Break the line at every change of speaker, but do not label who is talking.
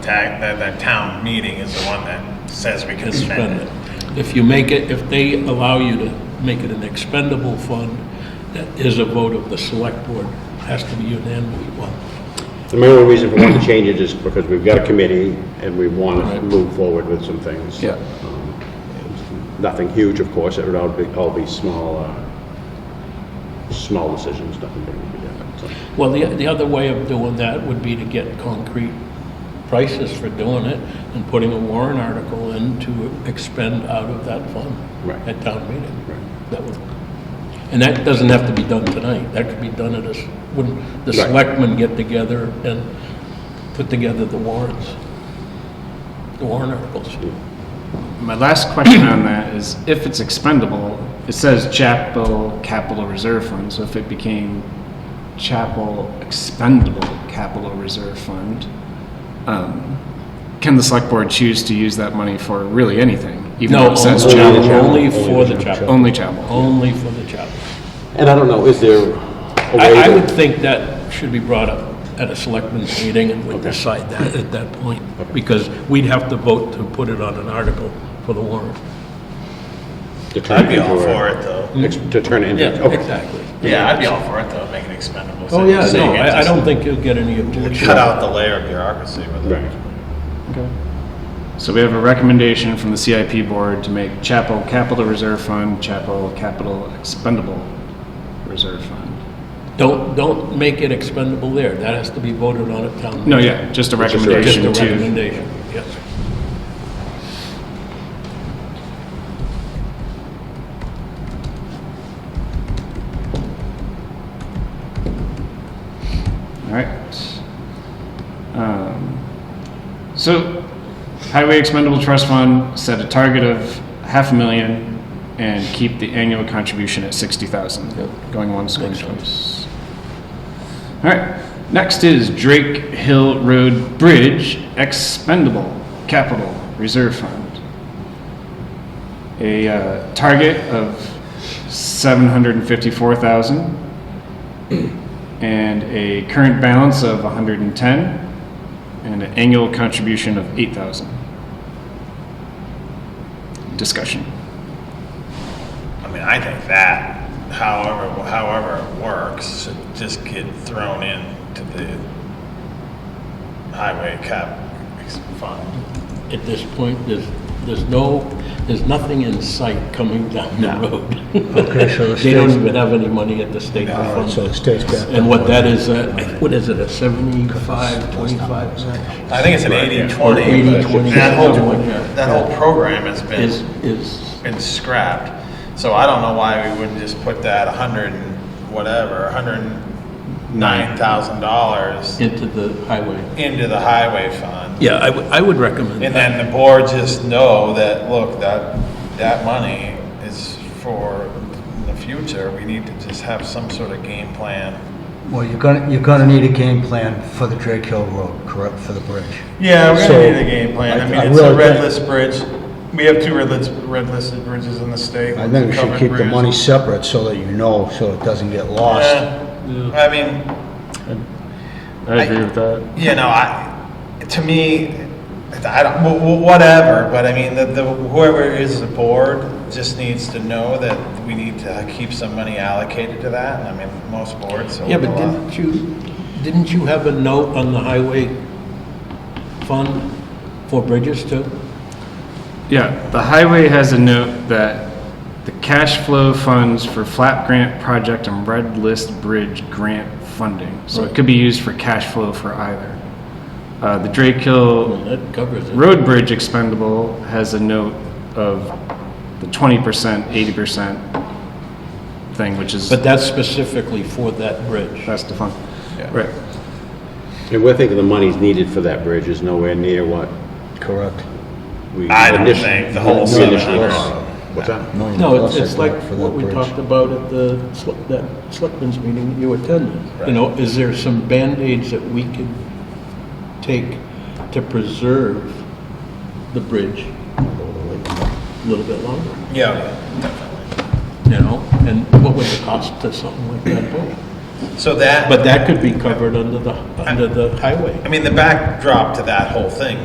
ta- that, that town meeting is the one that says we can spend
expend
it.
it. If you make it, if they allow you to make it an expendable fund, that is a vote of the select board, has to be unanimously one.
The main reason for wanting to change it is because we've got a committee and we want to
Right.
move forward with some things.
Yeah.
Nothing huge, of course, it would all be, all be small, uh, small decisions, nothing big would be done. so.
Well, the, the other way of doing that would be to get concrete prices for doing it and putting a warrant article in to expend out of that fund
Right.
at town meeting.
Right.
That would, and that doesn't have to be done tonight. That could be done at a, s- when the
Right.
selectmen get together and put together the warrants, the warrant articles.
My last question on that is, if it's expendable, it says chapel capital reserve fund, so if it became chapel expendable capital reserve fund, um, can the select board choose to use that money for really anything? even though
No,
it says
only-
chapel?
only for the chapel.
Only chapel.
Only for the chapel.
And I don't know, is there a way
I, I would
to?
think that should be brought up at a selectmen's meeting and we decide that at that point, because we'd have to vote to put it on an article for the warrant.
to turn
I'd be all
into a-
for it, though.
ex- To turn it into. okay.
Exactly.
Yeah, I'd be all for it, though, make it expendable.
Oh, yeah, no,
Saying it
I, I
just-
don't think you'll get any objection.
Cut out the layer of bureaucracy with it.
Right.
So we have a recommendation from the CIP board to make chapel capital reserve fund, chapel capital expendable reserve fund.
Don't, don't make it expendable there. That has to be voted on at town meeting.
No, yeah, just a
Just a
Just a
recommendation to
recommendation, yes.
All right. Um, So, Highway Expendable Trust Fund set a target of half a million and keep the annual contribution at sixty thousand, going once, going twice. All right, next is Drake Hill Road Bridge Expendable Capital Reserve Fund. A uh, target of seven hundred and fifty-four thousand and a current balance of 110 and an annual contribution of 8,000. Discussion.
I mean, I think that, however, however it works, should just get thrown into the highway cap ex- fund.
At this point, there's, there's no, there's nothing in sight coming down the road. Okay,
so it
They don't
stays-
even have any money at the state. level.
So it stays back.
And what that is, uh, what is it, a 75, 25?
I think it's an eighty twenty.
80/20,
That whole,
something like that.
that whole program has
Is,
been,
is,
been scrapped. So I don't know why we wouldn't just put that a hundred and whatever, a hundred and nine thousand dollars
into the highway.
into the highway fund.
Yeah, I would, I would recommend
And
that.
then the board just know that, look, that, that money is for the future. We need to just have some sort of game plan.
Well, you're gonna, you're gonna need a game plan for the Drake Hill Road, correct, for the bridge.
Yeah, we're
So,
gonna need a game plan. I
I- I
mean, it's a
really
red
think-
list bridge. We have two red list, red listed bridges in the state.
I think you should
Covered
keep the
bridge.
money separate so that you know, so it doesn't get lost.
Yeah. Uh, I mean,
I agree with that.
you know, I, to me, I don't, wh- wh- whatever, but I mean, the, the, whoever is the board just needs to know that we need to keep some money allocated to that, and I mean, most boards. uh, will
Yeah, but
allow-
didn't you, didn't you have a note on the highway fund for bridges too?
Yeah, the highway has a note that the cash flow funds for flap grant project and red list bridge grant funding. So it could be used for cash flow for either. Uh, the Drake Hill
Well, that covers it.
Road bridge expendable has a note of the twenty percent, eighty percent thing, which is,
But that's specifically for that bridge.
that's defined. Right.
And we're thinking the money's needed for that bridge is nowhere near what
Correct.
we.
I don't
initially-
think the whole
we initially
700.
thought. What's that?
Million
No, it's
plus, I
it's like
think, for that
what we
bridge.
talked about at the, sel- that selectmen's meeting you attended. You know, is there some Band-Aids that we could take to preserve the bridge a little bit longer?
Yeah,
You know, and what would it cost to something like that?
So that,
But that could be covered under the, under the highway.
I mean, the backdrop to that whole thing